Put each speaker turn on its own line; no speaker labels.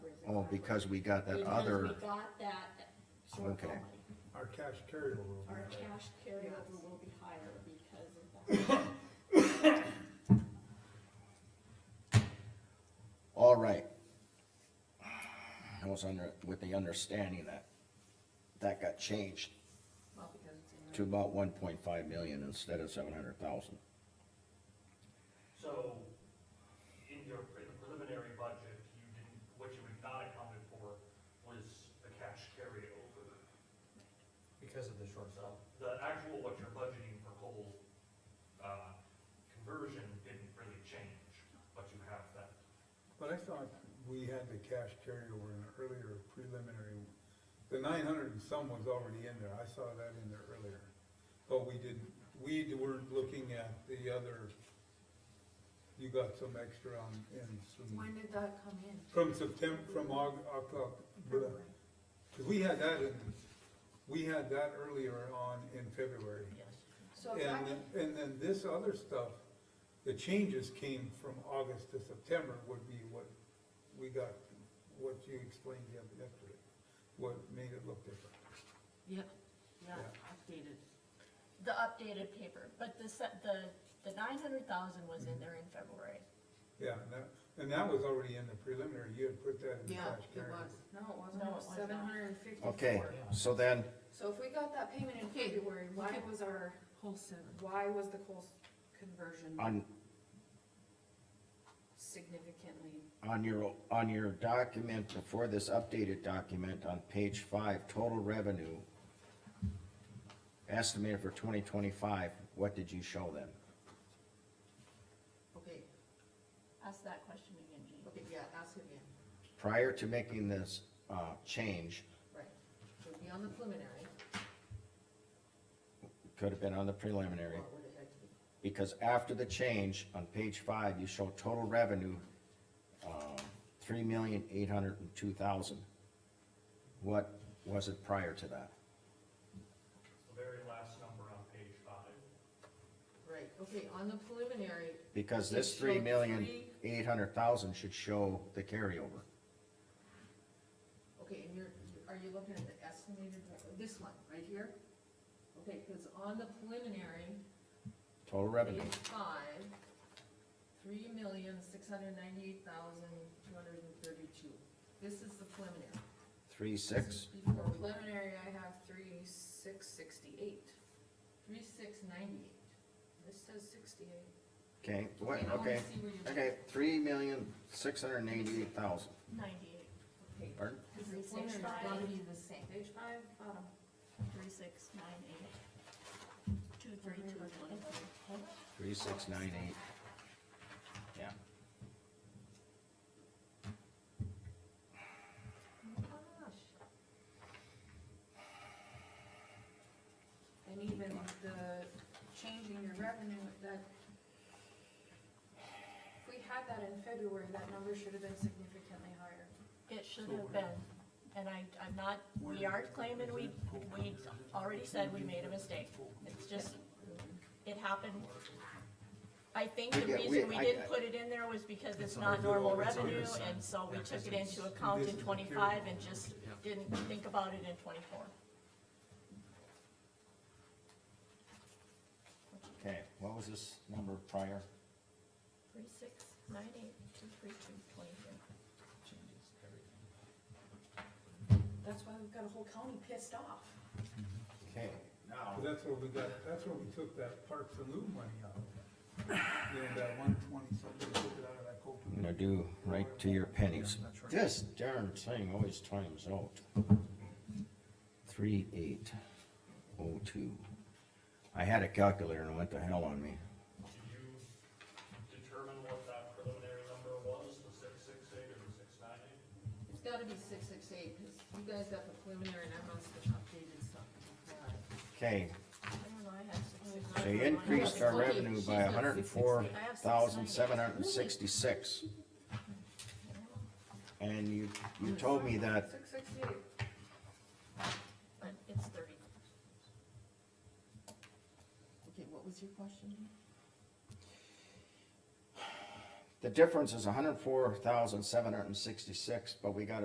Oh, because we got that
because we
other,
got that shortfall
Okay.
money.
Our cash carryover.
Our cash carryover will be higher because of that.
all right. I was under, with the understanding that that got changed
Well, because it's in
to about one point five million instead of seven hundred thousand.
So, in your, in the preliminary budget, you didn't, what you had not accounted for was the cash carryover.
because of the shortfall.
So, the actual, what you're budgeting for coal, uh, conversion didn't really change, but you have that.
But I thought we had the cash carryover in the earlier preliminary, the nine hundred and some was already in there, I saw that in there earlier. But we didn't, we weren't looking at the other, you got some extra on, in some,
When did that come in?
from September, from Aug, October. uh, Cause we had that in, we had that earlier on in February.
Yes.
So if I
And, then- and then this other stuff, the changes came from August to September would be what we got, what you explained the other- yesterday, what made it look different.
Yep, yeah,
Yeah.
updated.
The updated paper, but the, se- the, the nine hundred thousand was in there in February.
Yeah, and that, and that was already in the preliminary, you had put that in the
Yeah,
cash
it
carry.
was. No, it wasn't.
No,
It
it
was
was not.
seven hundred and fifty-four.
Okay, so then,
So if we got that payment in
Okay,
February, why
okay.
was our,
Whole seven.
why was the coal s- conversion
on,
significantly?
on your, on your document, before this updated document, on page five, total revenue estimated for twenty twenty-five, what did you show them?
Okay,
Ask that question again, Jean.
okay, yeah, ask it again,
Prior to making this, uh, change,
right. So it'd be on the preliminary,
could have been on the preliminary,
what would it have to be?
because after the change, on page five, you show total revenue, um, three million eight hundred and two thousand. What was it prior to that?
The very last number on page five,
Right, okay, on the preliminary,
Because
It
this
showed
three million
three-
eight hundred thousand should show the carryover.
okay, and you're, are you looking at the estimated, re- this one, right here? Okay, because on the preliminary,
Total revenue,
page five, three million, six hundred ninety-eight thousand, two hundred and thirty-two. This is the preliminary.
three six,
Before we
Preliminary, I have three, six, sixty-eight.
Three six ninety-eight.
This says sixty-eight.
okay, what,
now I
okay,
see where you're-
okay, three million six hundred and eighty-eight thousand,
Ninety-eight,
Okay,
pardon?
because the preliminary's gotta be the same.
Page five, bottom.
three, six, nine, eight, two, three, two, twenty-three.
Three six nine eight. Yeah.
Oh my gosh.
And even the changing your revenue, that, if we had that in February, that number should have been significantly higher.
It should have been, and I, I'm not, we are claiming we, we already said we made a mistake. It's just, it happened. I think the
We get-
reason
we-
we
I-
didn't put it in there was because it's not
under-
normal
it's under
revenue,
some-
and so we
yeah,
took it
it's-
into account
this
in
is
twenty-five
period.
and just
Yeah.
didn't think about it in twenty-four.
Okay, what was this number prior?
Three, six, nine, eight, two, three, two, twenty-three.
That's why we've got a whole county pissed off.
Okay, now,
But that's where we got, that's where we took that Parks and Loop money out of. You know, that one twenty something, we took it out of that coal.
I'm gonna do right to your pennies. This darn thing always times out. Three eight oh two. I had a calculator and it went to hell on me.
did you determine what that preliminary number was, the six six eight or the six nine eight?
It's gotta be six six eight, because you guys got the preliminary and I must have updated something. Yeah.
Okay,
I don't know, I had six, six,
so
nine,
you
nine, nine.
increased our
Okay,
revenue
she's
by
got
hundred and four thousand seven hundred and sixty-six. And you, you told me that
Six sixty-eight.
But it's thirty.
Okay, what was your question?
the difference is hundred and four thousand seven hundred and sixty-six, but we got